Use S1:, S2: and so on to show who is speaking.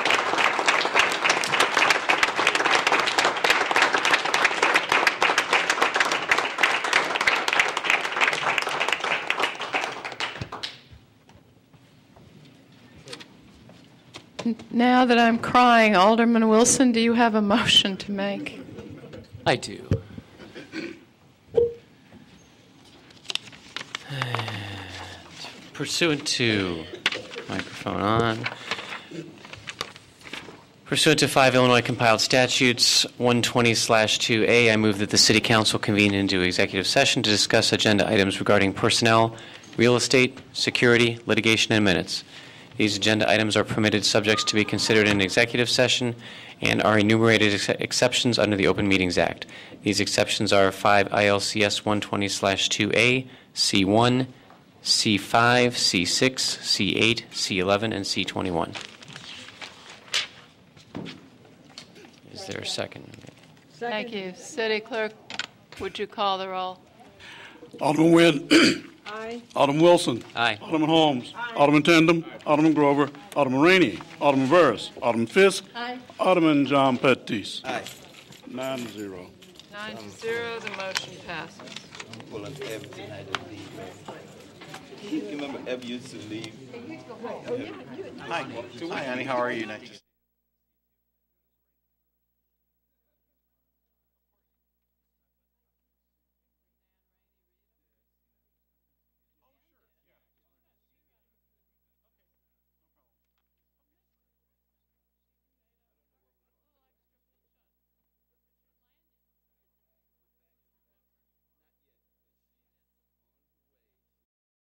S1: Now that I'm crying, Alderman Wilson, do you have a motion to make?
S2: I do. Pursuant to, microphone on. Pursuant to five Illinois compiled statutes, 120/2A, I move that the city council convene into executive session to discuss agenda items regarding personnel, real estate, security, litigation, and minutes. These agenda items are permitted subjects to be considered in executive session and are enumerated ex- exceptions under the Open Meetings Act. These exceptions are 5 ILCS 120/2A, C1, C5, C6, C8, C11, and C21. Is there a second?
S1: Thank you. City Clerk, would you call the roll?
S3: Alderman Wynn.
S4: Aye.
S3: Alderman Wilson.
S2: Aye.
S3: Alderman Holmes. Alderman Tandem. Alderman Grover. Alderman Rainey. Alderman Verse. Alderman Fisk.
S1: Aye.
S3: Alderman John Pettis. Aye. Nine to zero.
S1: Nine to zero, the motion passes.
S5: full of everything I did leave. You remember Ev used to leave? Hi, Hi, honey, how are you? Nice to see you.